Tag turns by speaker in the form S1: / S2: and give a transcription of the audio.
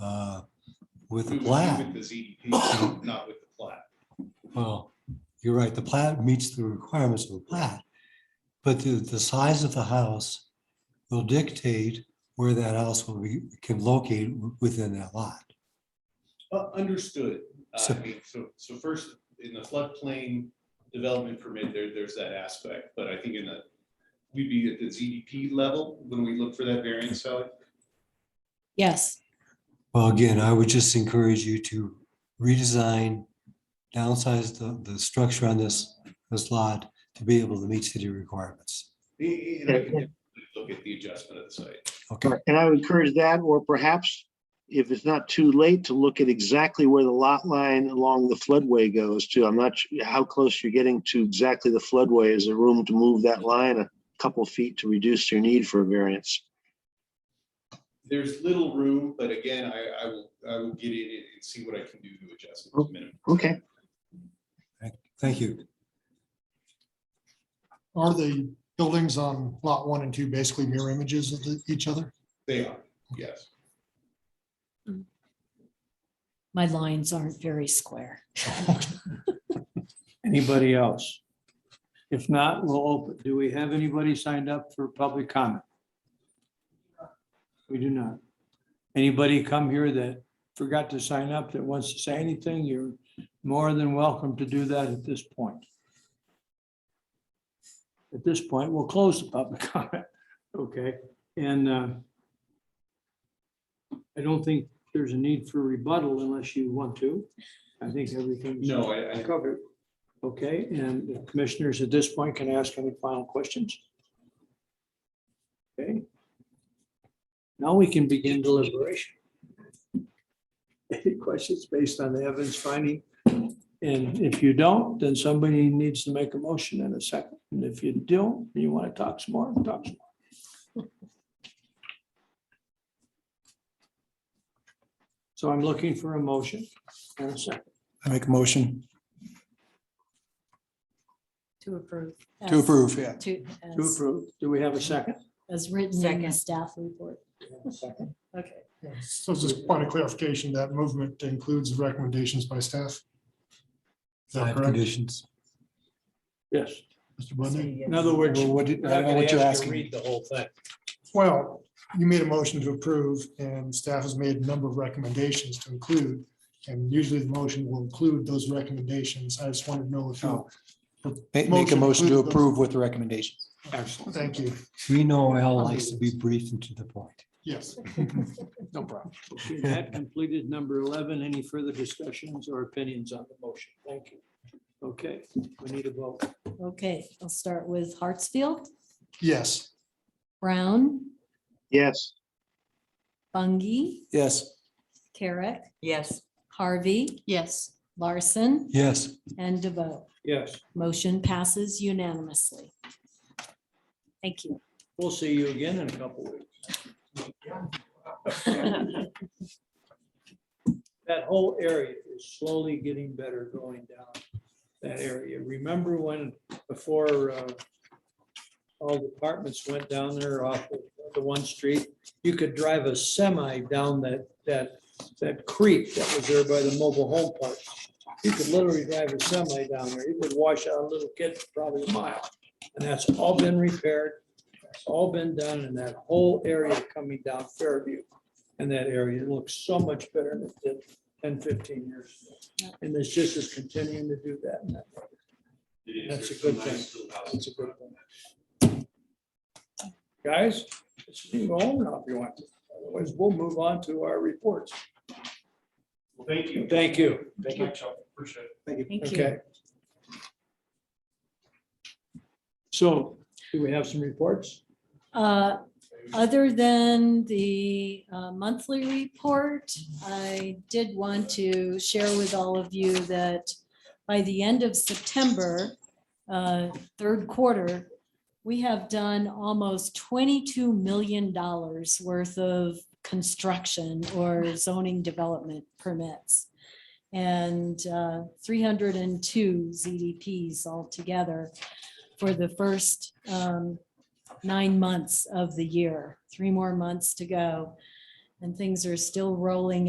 S1: uh, with
S2: We
S1: the
S2: would be
S1: plat.
S2: With the ZDP, not with the plat.
S1: Well, you're right, the plat meets the requirements of the plat. But the, the size of the house will dictate where that house will be, can locate within that lot.
S2: Uh, Understood. Uh,
S1: So-
S2: I mean, So, so first, in the floodplain development permit, there, there's that aspect, but I think in the, we'd be at the ZDP level when we look for that variance, Sally.
S3: Yes,
S1: Well, again, I would just encourage you to redesign, downsize the, the structure on this, this lot to be able to meet city requirements.
S2: Eh, eh, and I can definitely Look at the adjustment of the site.
S1: Okay,
S4: And I would encourage that, or perhaps if it's not too late to look at exactly where the lot line along the floodway goes to. I'm not sure how close you're getting to exactly the floodway. Is there room to move that line a couple feet to reduce your need for a variance?
S2: There's little room, but again, I, I will, I will get in and and see what I can do to adjust it to minimum.
S4: Okay.
S1: thank you.
S5: Are the buildings on lot one and two basically mirror images of the- each other?
S2: They are, yes.
S3: my lines aren't very square.
S6: Anybody else? If not, we'll open. Do we have anybody signed up for public comment? We do not. Anybody come here that forgot to sign up that wants to say anything, you're more than welcome to do that at this point. At this point, we'll close the public comment, okay? And uh, I don't think there's a need for rebuttal unless you want to. I think everything's.
S2: No, I, I,
S6: Covered. Okay, and the commissioners at this point can ask any final questions? Okay. Now we can begin deliberation. Any questions based on the evidence finding? And if you don't, then somebody needs to make a motion in a second. And if you don't, you want to talk some more, talk some more. So I'm looking for a motion and a second.
S7: I make a motion
S3: To approve.
S7: to
S3: as-
S7: approve, yeah.
S3: To,
S6: To
S3: as-
S6: approve. Do we have a second?
S3: as written in the staff report.
S6: Second.
S3: Okay.
S5: Yeah, So just point of clarification, that movement includes recommendations by staff? Is that
S1: Five
S5: correct,
S1: conditions.
S6: Yes.
S5: Mr. Bundy?
S6: In other words.
S7: Well, what did- I don't know what you're asking.
S6: Read the whole thing.
S5: Well, you made a motion to approve and staff has made a number of recommendations to include. And usually the motion will include those recommendations. I just wanted to know if you,
S7: Ma- Make a motion to
S5: Motion includes those.
S7: approve with the recommendations.
S6: Excellent.
S5: thank you.
S1: We know Al likes to be brief and to the point.
S5: Yes.
S7: No problem.
S6: Okay, That completed number 11. Any further discussions or opinions on the motion? Thank you. Okay, we need a vote.
S3: Okay, I'll start with Hartsfield,
S5: Yes.
S3: Brown,
S4: Yes.
S3: Bungie,
S7: Yes.
S3: Carrick,
S8: Yes.
S3: Harvey. Yes. Larson
S1: Yes.
S3: and DeVoe.
S6: Yes,
S3: Motion passes unanimously. Thank you.
S6: we'll see you again in a couple of weeks. That whole area is slowly getting better going down that area. Remember when before uh, all the apartments went down there off of the one street? You could drive a semi down that, that, that creek that was there by the mobile home park. You could literally drive a semi down there. It would wash out a little kid for probably a mile. And that's all been repaired. It's all been done in that whole area coming down Fairview. And that area looks so much better than it did 10, 15 years. ago. And it's just is continuing to do that. and that- That's a good thing. That's a good thing. Guys, it's you can go home now if you want to. Otherwise, we'll move on to our reports.
S2: Well, thank you.
S6: Thank you.
S2: Thank you, Chuck. Appreciate it.
S3: Thank you.
S6: Okay. So do we have some reports?
S3: Uh, Other than the uh, monthly report, I did want to share with all of you that by the end of September, uh, third quarter, we have done almost $22 million worth of construction or zoning development permits and uh, 302 ZDPs altogether for the first um, nine months of the year, three more months to go. And things are still rolling